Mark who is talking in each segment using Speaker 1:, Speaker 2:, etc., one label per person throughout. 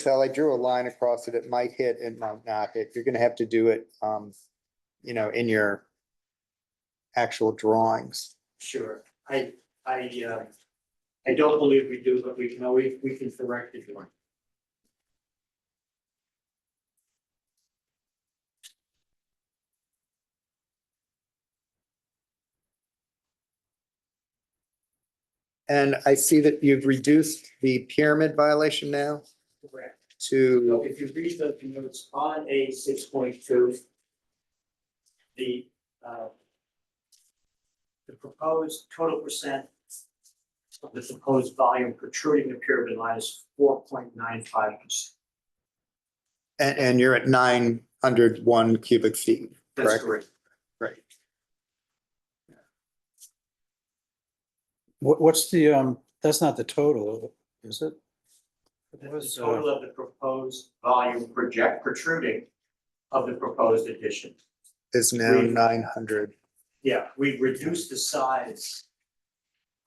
Speaker 1: Sal, I drew a line across it. It might hit and might not hit. You're gonna have to do it, um, you know, in your actual drawings.
Speaker 2: Sure, I, I, uh, I don't believe we do, but we can always, we can correct it.
Speaker 1: And I see that you've reduced the pyramid violation now
Speaker 2: Correct. So
Speaker 1: to,
Speaker 2: if you read the notes on A six point two, the, uh, the proposed total percent of the proposed volume protruding the pyramid line is four point nine five percent.
Speaker 1: and, and you're at nine hundred one cubic feet.
Speaker 2: That's
Speaker 1: Correct.
Speaker 2: correct.
Speaker 3: What, what's the, um, that's not the total, is it?
Speaker 2: That's
Speaker 3: was,
Speaker 2: The
Speaker 3: uh,
Speaker 2: total of the proposed volume project protruding of the proposed addition.
Speaker 1: Is now nine hundred.
Speaker 2: Yeah, we reduced the size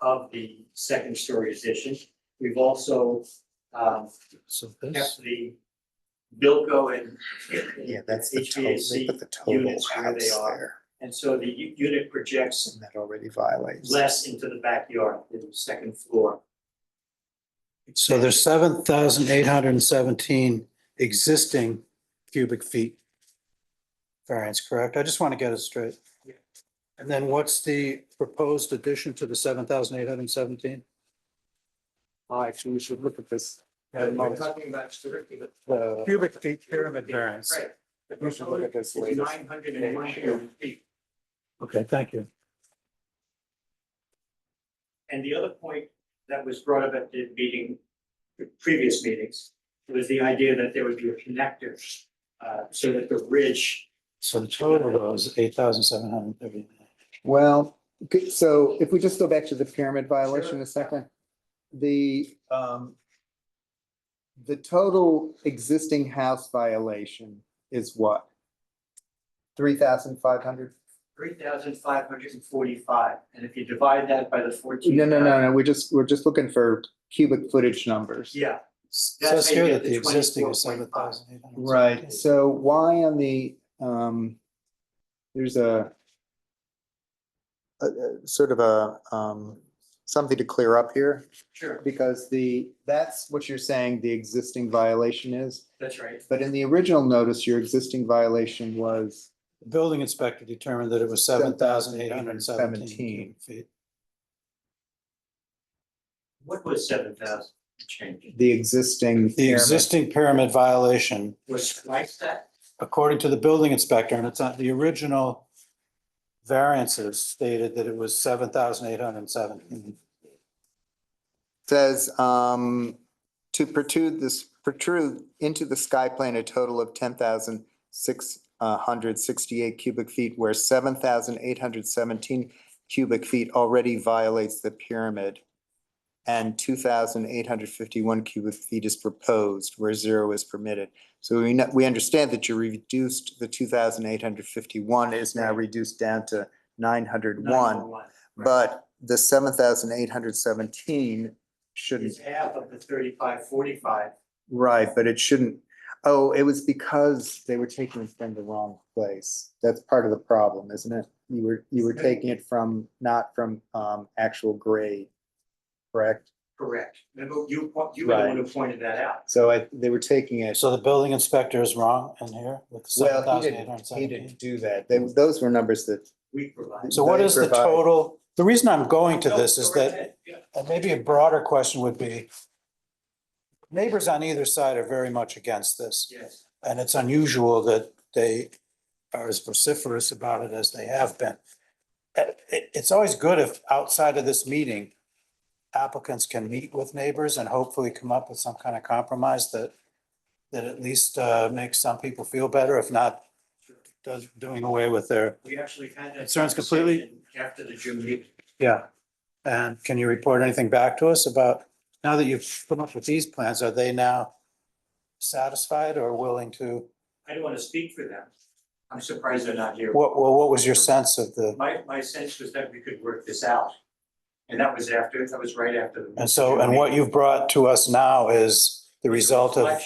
Speaker 2: of the second story addition. We've also um,
Speaker 3: So this,
Speaker 2: kept the Bilco and
Speaker 1: Yeah, that's the total. They put
Speaker 2: HVAC,
Speaker 1: the total
Speaker 2: units where they
Speaker 1: house
Speaker 2: are.
Speaker 1: there.
Speaker 2: and so the u- unit projects
Speaker 1: And that already violates.
Speaker 2: less into the backyard than the second floor.
Speaker 3: so there's seven thousand eight hundred and seventeen existing cubic feet variance, correct? I just want to get it straight.
Speaker 2: Yeah.
Speaker 3: And then what's the proposed addition to the seven thousand eight hundred and seventeen?
Speaker 4: Actually, we should look at this.
Speaker 2: talking about strictly the.
Speaker 4: uh,
Speaker 3: Cubic feet pyramid variance.
Speaker 2: Right. The
Speaker 4: We should look at this
Speaker 2: proposed is
Speaker 4: later.
Speaker 2: 901 feet.
Speaker 3: Okay, thank you.
Speaker 2: And the other point that was brought up at the meeting, the previous meetings, was the idea that there would be a connector, uh, so that the ridge,
Speaker 3: So the total was eight thousand seven hundred and thirty-nine.
Speaker 1: Well, good- so if we just go back to the pyramid violation a second, the, um, the total existing house violation is what? Three thousand five hundred?
Speaker 2: three thousand five hundred and forty-five, and if you divide that by the fourteen.
Speaker 1: No, no, no, no, we're just, we're just looking for cubic footage numbers.
Speaker 2: Yeah,
Speaker 3: Says
Speaker 2: how you
Speaker 3: here
Speaker 2: get
Speaker 3: that the
Speaker 2: the
Speaker 3: existing is
Speaker 2: 24.5.
Speaker 3: seven thousand eight hundred.
Speaker 1: Right, so why on the, um, there's a a- a sort of a, um, something to clear up here.
Speaker 2: sure,
Speaker 1: Because the, that's what you're saying the existing violation is,
Speaker 2: that's right,
Speaker 1: but in the original notice, your existing violation was,
Speaker 3: The Building inspector determined that it was seven thousand eight hundred and seventeen
Speaker 1: 7,817.
Speaker 3: feet.
Speaker 2: what was seven thousand change?
Speaker 1: the existing.
Speaker 3: The
Speaker 1: pyramid.
Speaker 3: existing pyramid violation,
Speaker 2: Was twice that?
Speaker 3: according to the building inspector, and it's not, the original variances stated that it was seven thousand eight hundred and seventeen.
Speaker 1: Says, um, to protrude this, protrude into the sky plane a total of ten thousand six uh, hundred sixty-eight cubic feet, where seven thousand eight hundred seventeen cubic feet already violates the pyramid. And two thousand eight hundred fifty-one cubic feet is proposed, where zero is permitted. So we, know- we understand that you reduced the two thousand eight hundred fifty-one is now reduced down to nine hundred one.
Speaker 2: 901. Right.
Speaker 1: But the seven thousand eight hundred seventeen shouldn't,
Speaker 2: It's half of the thirty-five, forty-five,
Speaker 1: right, but it shouldn't. Oh, it was because they were taking it from the wrong place. That's part of the problem, isn't it? You were, you were taking it from, not from um actual grade, correct?
Speaker 2: correct, remember, you, you were the one who pointed that out.
Speaker 1: So I, they were taking it,
Speaker 3: So the building inspector is wrong in here with seven
Speaker 1: well, he
Speaker 3: thousand eight hundred
Speaker 1: didn't,
Speaker 3: and
Speaker 1: he
Speaker 3: seventeen.
Speaker 1: didn't do that. They, those were numbers that,
Speaker 2: We provide.
Speaker 3: So what
Speaker 1: They
Speaker 3: is the
Speaker 1: provide-
Speaker 3: total? The reason I'm going to
Speaker 2: No,
Speaker 3: this is
Speaker 2: go right
Speaker 3: that
Speaker 2: ahead. Yeah.
Speaker 3: And maybe a broader question would be, neighbors on either side are very much against this,
Speaker 2: Yes,
Speaker 3: and it's unusual that they are as vociferous about it as they have been. Uh, it- it's always good if outside of this meeting, applicants can meet with neighbors and hopefully come up with some kind of compromise that, that at least, uh, makes some people feel better, if not, does, doing away with their,
Speaker 2: we actually had that.
Speaker 3: It sounds completely-
Speaker 2: conversation After the June meeting.
Speaker 3: yeah. And can you report anything back to us about, now that you've come up with these plans, are they now satisfied or willing to?
Speaker 2: I don't want to speak for them. I'm surprised they're not here.
Speaker 3: What, well, what was your sense of the,
Speaker 2: My, my sense was that we could work this out. And that was after, that was right after. the-
Speaker 3: and so, and what you've brought to us now is the result of